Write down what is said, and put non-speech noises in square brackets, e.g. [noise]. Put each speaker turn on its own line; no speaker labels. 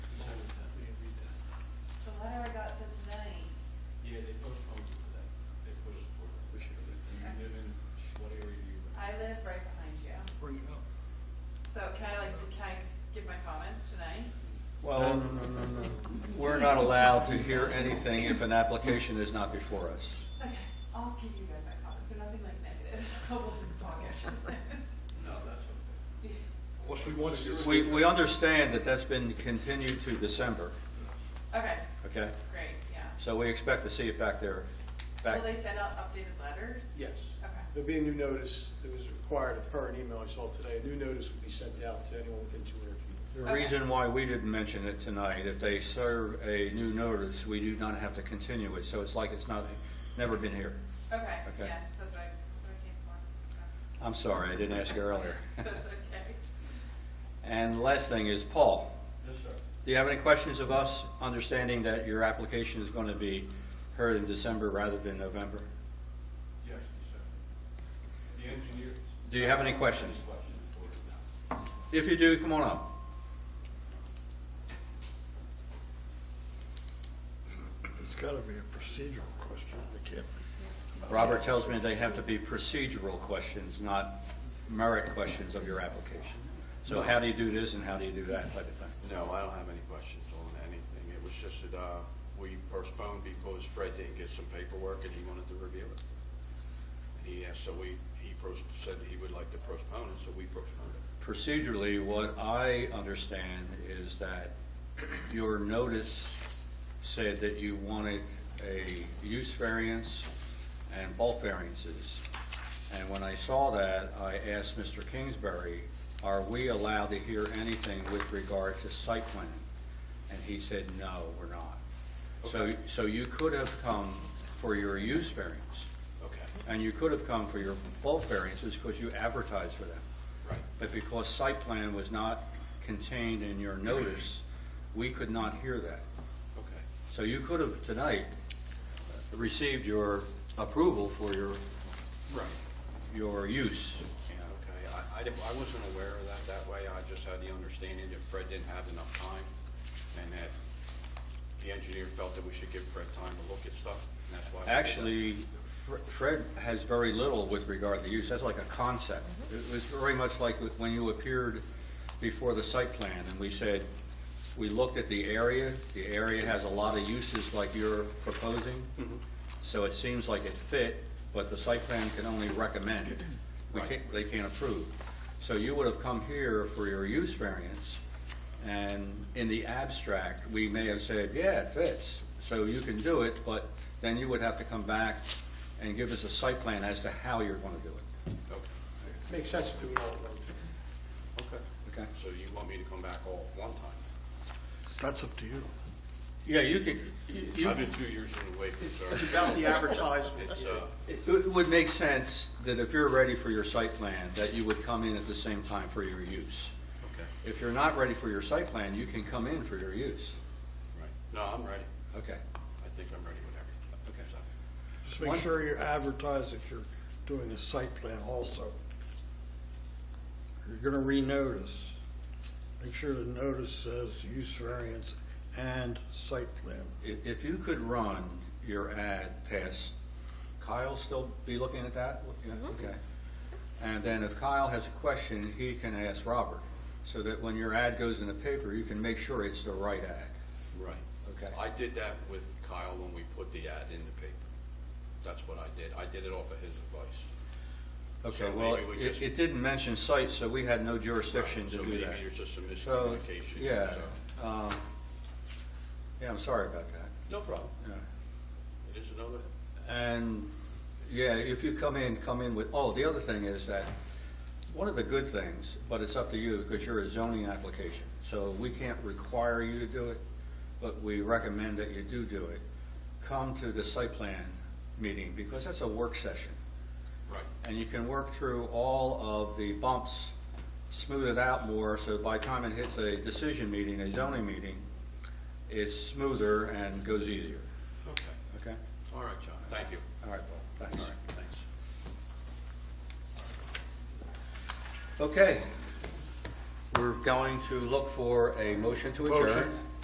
We're not allowed to hear anything if an application is not before us.
Okay, I'll give you guys that comment, so nothing like negative, [laughs] we'll just talk it.
No, that's okay.
Yeah.
Unless we want to do it.
We, we understand that that's been continued to December,
[laughs] Okay,
okay?
great, yeah.
So we expect to see it back there, back.
Will they send out updated letters?
Yes.
Okay,
There'll be a new notice that was required per an email I saw today. A new notice will be sent out to anyone within 200 feet.
The
Okay.
reason why we didn't mention it tonight, if they serve a new notice, we do not have to continue it, so it's like it's not, never been here.
okay,
Okay.
yeah, that's what I, that's what I came for. so.
I'm sorry, I didn't ask you earlier. [laughs]
That's okay.
And the last thing is, Paul,
Yes, sir.
do you have any questions of us, understanding that your application is going to be heard in December rather than November?
Yes, sir. The engineer.
Do you have any questions?
Questions for us now.
If you do, come on up.
It's gotta be a procedural question, it can't be.
Robert tells me they have to be procedural questions, not merit questions of your application. So how do you do this and how do you do that type of thing?
No, I don't have any questions on anything. It was just that uh, we postponed because Fred didn't get some paperwork and he wanted to review it. And he asked, so we, he pros- said that he would like to postpone it, so we postponed it.
Procedurally, what I understand is that your notice said that you wanted a use variance and bulk variances. And when I saw that, I asked Mr. Kingsbury, are we allowed to hear anything with regard to site plan? And he said, no, we're not. So, so you could have come for your use variance,
Okay,
and you could have come for your bulk variances because you advertised for them.
right.
But because site plan was not contained in your notice, we could not hear that.
Okay,
So you could have tonight received your approval for your,
right.
your use.
Yeah, okay. I, I didn't- I wasn't aware of that that way. I just had the understanding that Fred didn't have enough time and that the engineer felt that we should give Fred time to look at stuff, and that's why. we did that.
Actually, Fre- Fred has very little with regard to use, that's like a concept. It was very much like when you appeared before the site plan, and we said, we looked at the area, the area has a lot of uses like you're proposing, so it seems like it fit, but the site plan can only recommend. We can't, they can't approve. So you would have come here for your use variance, and in the abstract, we may have said, yeah, it fits, so you can do it, but then you would have to come back and give us a site plan as to how you're gonna do it,
Okay.
Makes sense to do it all at once.
Okay.
okay?
So you want me to come back all at one time?
That's up to you.
Yeah, you could, you- you,
I've been two years in the waiting, [laughs] so. uh,
It's about the advertisement.
It's, uh,
it it would make sense that if you're ready for your site plan, that you would come in at the same time for your use.
okay,
If you're not ready for your site plan, you can come in for your use.
right. No, I'm ready.
Okay.
I think I'm ready with everything. Okay. so-
Just
One-
make sure you advertise if you're doing a site plan also. You're gonna renotice. Make sure the notice says use variance and site plan.
If, if you could run your ad past, Kyle still be looking at that? Yeah, Okay. And then if Kyle has a question, he can ask Robert, so that when your ad goes in the paper, you can make sure it's the right ad.
Right.
Okay.
I did that with Kyle when we put the ad in the paper. That's what I did. I did it off of his advice.
Okay,
So
well,
maybe we
it,
just-
it didn't mention site, so we had no jurisdiction to
So
do
maybe
that.
there's just a
So,
miscommunication.
yeah,
so-
um, yeah, I'm sorry about that.
No problem.
Yeah.
It is another,
And, yeah, if you come in, come in with, oh, the other thing is that, one of the good things, but it's up to you, because you're a zoning application, so we can't require you to do it, but we recommend that you do do it. Come to the site plan meeting, because that's a work session,
right.
and you can work through all of the bumps, smooth it out more, so by the time it hits a decision meeting, a zoning meeting, it's smoother and goes easier,
Okay.
okay?
All right, John. Thank you.
All right, Paul,
All
thanks.
right, thanks.
Okay. We're going to look for a motion to adjourn.
Motion.